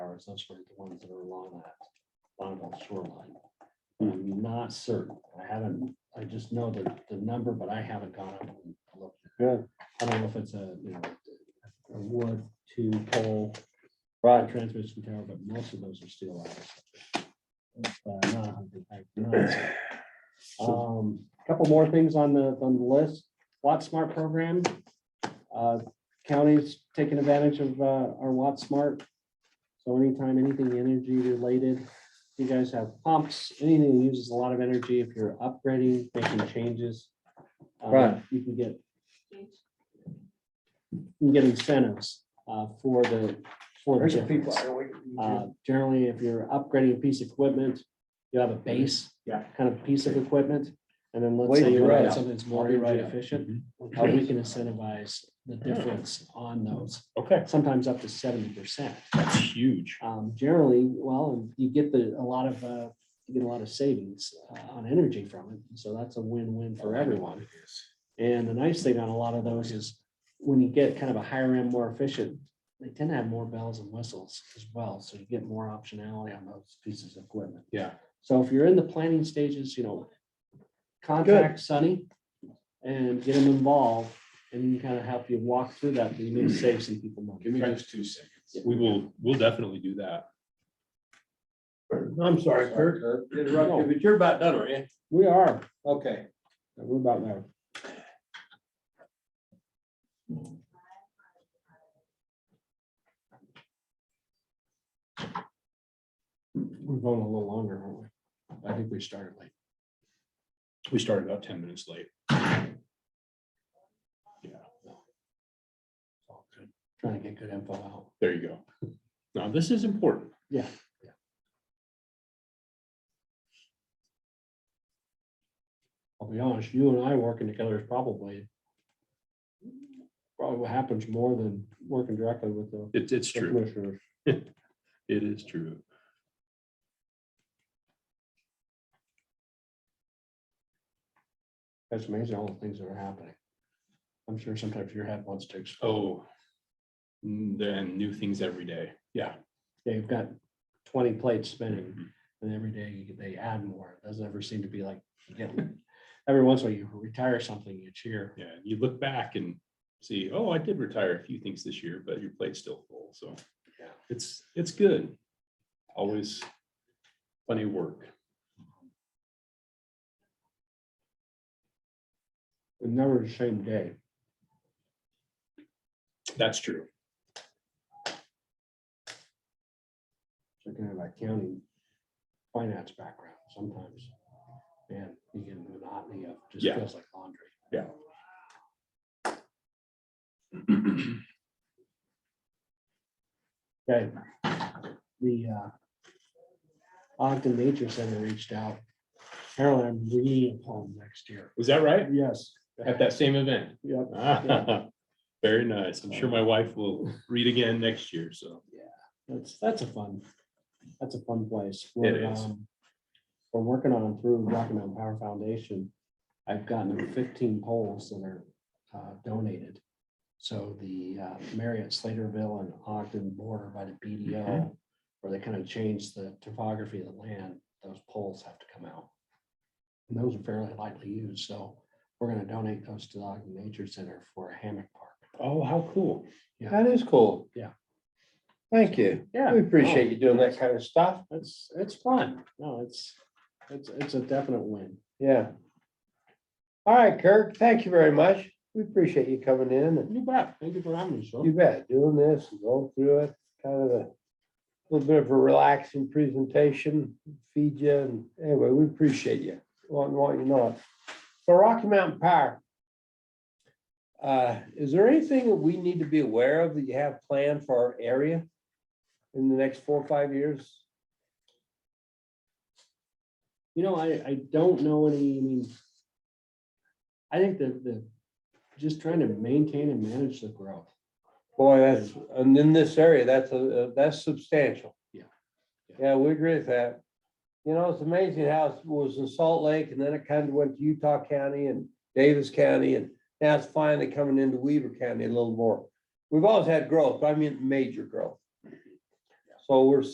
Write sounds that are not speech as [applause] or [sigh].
as those were the ones that are along that Bonneville shoreline. But I'm not certain. I haven't, I just know the, the number, but I haven't gone up and looked. Yeah. I don't know if it's a, you know, a wood, two pole, a Right, transmission tower, but most of those are steel. ladders. But I'm not a hundred- I'm not certain. Um, couple more things on the, on the list. Watt Smart program. Uh, County's taking advantage of uh, our Watt Smart. So anytime anything energy related, you guys have pumps, anything that uses a lot of energy, if you're upgrading, making changes. uh, Right. You can get. You can get incentives uh, for the, for the There's some people. difference. I know we- we Uh, do- Generally, if you're upgrading a piece of equipment, you have a base. Yeah. Kind of piece of equipment, and then let's Wait, say you're you're right at up. something that's more I'll be right energy up. [clears throat] efficient, Oh, how we can incentivize the difference on those, Okay, sometimes up to seventy percent. that's huge. Um, Generally, well, you get the, a lot of, uh, you get a lot of savings uh, on energy from it, so that's a win-win for everyone. And the nice thing on a lot of those is when you get kind of a higher end, more efficient, they tend to have more bells and whistles as well. So you get more optionality on those pieces of equipment. Yeah. So if you're in the planning stages, you know, contact Sunny and get them involved and he can kind of help you walk through that. but You may save some people money. me just two seconds. We will, we'll definitely do that. I'm sorry, Kurt, interrupted, but you're about done, are you? We are, Okay, we're about there. We're going a little longer, aren't we? I think we started late. We started about ten minutes late. Yeah, All good. Trying to get good info out. there you go. Now, this is important. I'll be honest, you and I working together is probably probably what happens more than working directly with the It's, it's the true. commissioners. It is true. That's amazing, all the things that are happening. I'm sure sometimes your head wants to explode. Oh. mm, Then new things every day. Yeah. Yeah, you've got twenty plates spinning and every day you- they add more. It Doesn't ever seem to be like, you get- every once in a while you retire something, you cheer. Yeah, you look back and see, oh, I did retire a few things this year, but your plate's still full, so. Yeah. It's, it's good. Always plenty of work. And Never the same day. That's true. So kind of like county finance background sometimes. Man, you get a monotony of, just Yeah. feels like laundry. Okay. The uh, Ogden Nature Center reached out. Carolyn, I'm reading home next year. Was that right? Yes. At that same event? Yep. Ah, [laughs] Very nice. I'm sure my wife will read again next year, so. That's, that's a fun, that's a fun place. We're, is. um, We're working on through Rocky Mountain Power Foundation. I've gotten fifteen poles that are uh, donated. So the uh, Marriott Slaterville and Ogden border by the BDO, where they kind of change the topography of the land, those poles have to come out. And those are fairly lightly used, so we're gonna donate those to the Ogden Nature Center for a hammock park. Oh, how cool. that is cool. Yeah. Thank you. Yeah. Oh. We appreciate you doing that kind of stuff. It's, it's fun. No, it's, it's, it's a definite win. Yeah. All right, Kirk, thank you very much. We appreciate you coming in and You bet. Thank you for having me, sir. you bet, doing this and going through it, kind of a little bit of a relaxing presentation, feed you, and anyway, we appreciate you. Want, want you to know. it. So Rocky Mountain Power. Uh, is there anything that we need to be aware of that you have planned for our area in the next four or five years? You know, I, I don't know any, I mean, I think that the, just trying to maintain and manage the growth. Boy, that's, and in this area, that's a, a- that's substantial. Yeah. Yeah, we agree with that. You know, it's amazing how it was in Salt Lake and then it kind of went to Utah County and Davis County and now it's finally coming into Weaver County a little more. We've always had growth, but I mean major growth. So we're